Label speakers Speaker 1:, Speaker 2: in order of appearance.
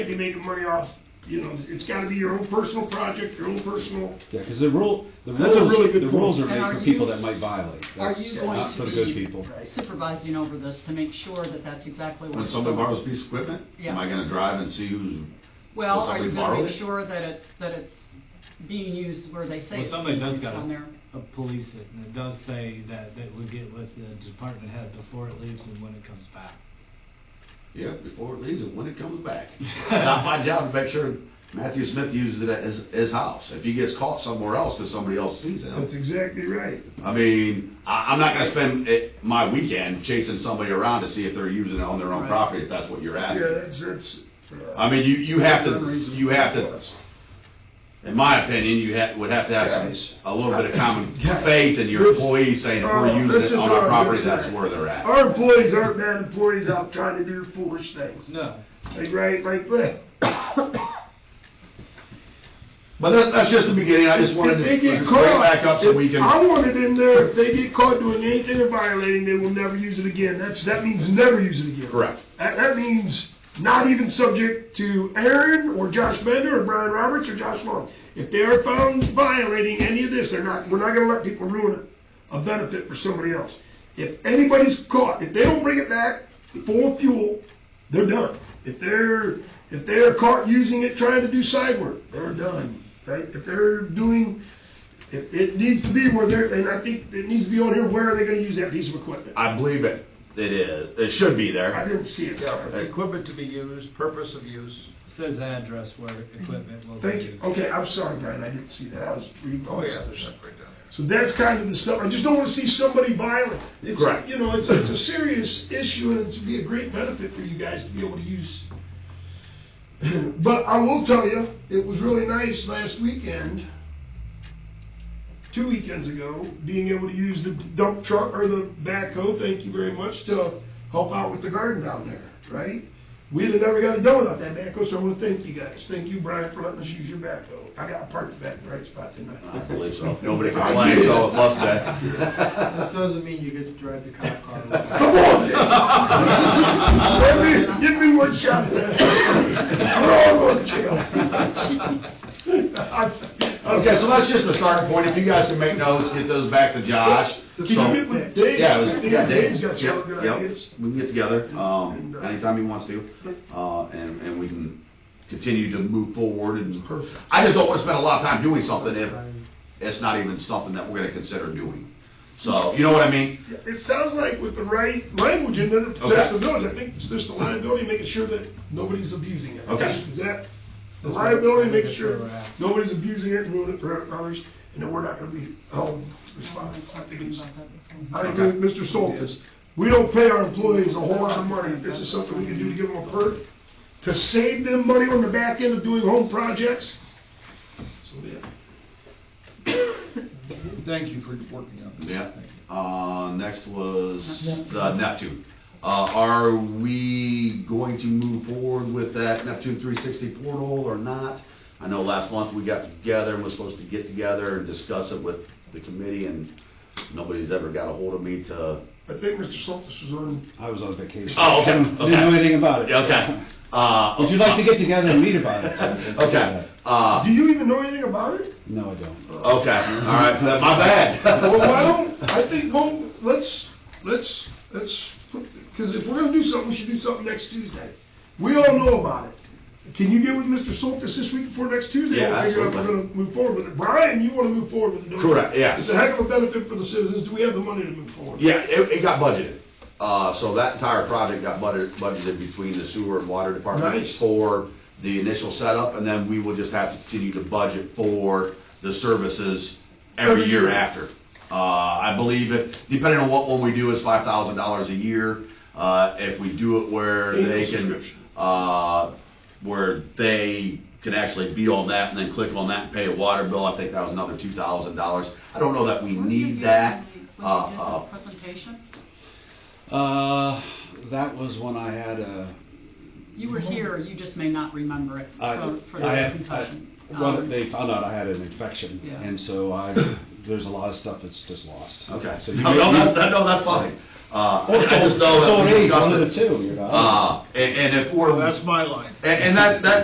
Speaker 1: if you make money off, you know, it's gotta be your own personal project, your own personal,
Speaker 2: Yeah, because the rule, the
Speaker 1: That's a really
Speaker 2: rules,
Speaker 1: good
Speaker 2: the rules are
Speaker 1: point.
Speaker 3: And
Speaker 2: made
Speaker 3: are
Speaker 2: for people
Speaker 3: you-
Speaker 2: that might violate.
Speaker 3: Are
Speaker 2: That's
Speaker 3: you going
Speaker 2: not for
Speaker 3: to
Speaker 2: the good people.
Speaker 3: be supervising over this to make sure that that's exactly what
Speaker 4: When
Speaker 3: it's
Speaker 4: somebody
Speaker 3: for?
Speaker 4: borrows a piece of equipment, am I
Speaker 3: Yeah.
Speaker 4: gonna drive and see who's,
Speaker 3: Well,
Speaker 4: Will
Speaker 3: are you
Speaker 4: somebody
Speaker 3: gonna
Speaker 4: borrow
Speaker 3: make
Speaker 4: it?
Speaker 3: sure that it's, that it's being used where they say
Speaker 5: Well,
Speaker 3: it's
Speaker 5: somebody
Speaker 3: being
Speaker 5: does
Speaker 3: used
Speaker 5: gotta
Speaker 3: on there?
Speaker 5: uh, police it, and it does say that, that we get with the department head before it leaves and when it comes back.
Speaker 4: yeah, before it leaves and when it comes back. Not my job to make sure Matthew Smith uses it at his, his house. If he gets caught somewhere else because somebody else sees
Speaker 1: that's
Speaker 4: him.
Speaker 1: exactly right.
Speaker 4: I mean, I, I'm not gonna spend it, my weekend chasing somebody around to see if they're using it on their own
Speaker 3: Right.
Speaker 4: property, if that's what you're
Speaker 1: Yeah,
Speaker 4: asking.
Speaker 1: that's, that's. uh,
Speaker 4: I mean, you, you have to,
Speaker 1: unreasonable
Speaker 4: you have to,
Speaker 1: request.
Speaker 4: in my opinion, you ha would have to have
Speaker 1: Guys.
Speaker 4: some, a little bit of common
Speaker 1: Guys.
Speaker 4: faith in your
Speaker 1: This-
Speaker 4: employees saying if
Speaker 1: Oh,
Speaker 4: we're
Speaker 1: this
Speaker 4: using
Speaker 1: is
Speaker 4: it on
Speaker 1: what I
Speaker 4: our
Speaker 1: was
Speaker 4: property,
Speaker 1: gonna
Speaker 4: that's
Speaker 1: say.
Speaker 4: where they're at.
Speaker 1: Our employees aren't bad employees out trying to do foolish things.
Speaker 5: No.
Speaker 1: Like, right, like, bleh.
Speaker 4: But that, that's just the beginning, I just wanted to
Speaker 1: If they get
Speaker 4: bring it
Speaker 1: caught.
Speaker 4: back up so we can,
Speaker 1: I want it in there, if they get caught doing anything or violating, they will never use it again. That's, that means never use it again.
Speaker 4: correct.
Speaker 1: That, that means not even subject to Aaron or Josh Bender or Brian Roberts or Josh Long. If they are found violating any of this, they're not, we're not gonna let people ruin a, a benefit for somebody else. If anybody's caught, if they don't bring it back full of fuel, they're done. If they're, if they're caught using it trying to do side work, they're done, right? If they're doing, it, it needs to be where they're, and I think it needs to be on here, where are they gonna use that piece of equipment?
Speaker 4: I believe it, it is, it should be
Speaker 1: I
Speaker 4: there.
Speaker 1: didn't see it.
Speaker 6: Yeah, equipment to be used, purpose of use.
Speaker 5: Says address where equipment will be
Speaker 1: Thank you.
Speaker 5: used.
Speaker 1: Okay, I'm sorry, Brian, I didn't see that. I was reading.
Speaker 6: Oh, yeah, they're separate down there.
Speaker 1: So that's kind of the stuff. I just don't want to see somebody violent. It's,
Speaker 4: Correct.
Speaker 1: you know, it's, it's a serious issue and it'd be a great benefit for you guys to be able to use. But I will tell you, it was really nice last weekend, two weekends ago, being able to use the dump truck or the backhoe, thank you very much, to help out with the garden down there, right? We'd have never got it done without that backhoe, so I want to thank you guys. Thank you, Brian, for letting us use your backhoe. I got parked back in the right spot, didn't I?
Speaker 4: I believe so, nobody complains, so it must be.
Speaker 7: That doesn't mean you get to drive the cop car.
Speaker 1: Come on, Dave. Let me- Give me one shot at that. We're all going to jail.
Speaker 4: Okay, so that's just the starting point, if you guys can make notes, get those back to Josh.
Speaker 1: Did you
Speaker 4: So-
Speaker 1: get with Dave?
Speaker 4: Yeah, it was-
Speaker 1: I think
Speaker 4: yeah,
Speaker 1: Dave's
Speaker 4: Dave.
Speaker 1: got some
Speaker 4: Yep,
Speaker 1: good
Speaker 4: yep.
Speaker 1: ideas.
Speaker 4: We can get together,
Speaker 1: And,
Speaker 4: um,
Speaker 1: uh,
Speaker 4: anytime he wants to, uh, and, and we can continue to move forward and.
Speaker 1: Perfect.
Speaker 4: I just don't wanna spend a lot of time doing something if it's not even something that we're gonna consider doing. So, you know what I mean?
Speaker 1: It sounds like with the right language in there, that's the village. I think it's just the liability, making sure that nobody's abusing it.
Speaker 4: Okay.
Speaker 1: Is that, the
Speaker 5: That's right.
Speaker 1: liability, making
Speaker 5: That's where
Speaker 1: sure
Speaker 5: we're at.
Speaker 1: nobody's abusing it and ruining it for others, and that we're not going to be held responsible. I think it's.
Speaker 3: About that before.
Speaker 1: I agree with Mr. Soltis. We don't pay our employees a whole lot of money. This is something we can do to give them a perk, to save them money on the back end of doing home projects. So, yeah.
Speaker 6: Thank you for working on this.
Speaker 4: Yeah.
Speaker 6: Thank you.
Speaker 4: Uh, next was the Neptune. Uh, are we going to move forward with that Neptune three sixty portal or not? I know last month we got together and was supposed to get together and discuss it with the committee and nobody's ever got a hold of me to.
Speaker 1: I think Mr. Soltis was on,
Speaker 2: I was on vacation.
Speaker 4: Oh, okay,
Speaker 2: Didn't
Speaker 4: okay.
Speaker 2: know anything about it.
Speaker 4: Uh,
Speaker 2: Would you like to get together and meet about it?
Speaker 4: Okay, uh,
Speaker 1: do you even know anything about it?
Speaker 2: No, I don't.
Speaker 4: okay, all right, my bad.
Speaker 1: Well, why don't, I think, well, let's, let's, let's, because if we're gonna do something, we should do something next Tuesday. We all know about it. Can you get with Mr. Soltis this week before next Tuesday?
Speaker 4: Yeah,
Speaker 1: We'll figure out if We're
Speaker 4: absolutely.
Speaker 1: gonna move forward with it. Brian, you wanna move forward with it? don't you?
Speaker 4: Correct, yes.
Speaker 1: It's a heck of a benefit for the citizens. Do we have the money to move forward?
Speaker 4: Yeah, it, it got budgeted. Uh, so that entire project got budgeted, budgeted between the sewer and water department
Speaker 1: Nice.
Speaker 4: for the initial setup, and then we will just have to continue to budget for the services every
Speaker 1: Every
Speaker 4: year
Speaker 1: year.
Speaker 4: after. Uh, I believe it, depending on what one we do, is five thousand dollars a year. Uh, if we do it where
Speaker 1: Annual
Speaker 4: they can,
Speaker 1: subscription.
Speaker 4: uh, where they can actually be on that and then click on that and pay a water bill, I think that was another two thousand dollars. I don't know that we
Speaker 3: Were you
Speaker 4: need
Speaker 3: here
Speaker 4: that.
Speaker 3: when we-
Speaker 4: Uh,
Speaker 3: When you
Speaker 4: uh,
Speaker 3: did the presentation,
Speaker 2: Uh, that was when I had a,
Speaker 3: you were here, you just may not remember it
Speaker 2: I,
Speaker 3: for Oh, for
Speaker 2: I
Speaker 3: the
Speaker 2: had, I-
Speaker 3: concussion.
Speaker 2: well,
Speaker 3: Um,
Speaker 2: they found out I had an infection.
Speaker 3: Yeah.
Speaker 2: And so I, there's a lot of stuff that's just lost.
Speaker 4: Okay.
Speaker 2: So you
Speaker 4: No,
Speaker 2: may-
Speaker 4: no,
Speaker 2: you-
Speaker 4: that's, that- no, that's fine. Uh,
Speaker 2: Or it's
Speaker 4: I
Speaker 2: old-
Speaker 4: just know
Speaker 2: it's
Speaker 4: that
Speaker 2: old
Speaker 4: we
Speaker 2: age,
Speaker 4: discussed
Speaker 2: one of the
Speaker 4: it.
Speaker 2: two, you know?
Speaker 4: Uh, and, and if we're,
Speaker 6: Well, that's my line.
Speaker 4: and, and that, that,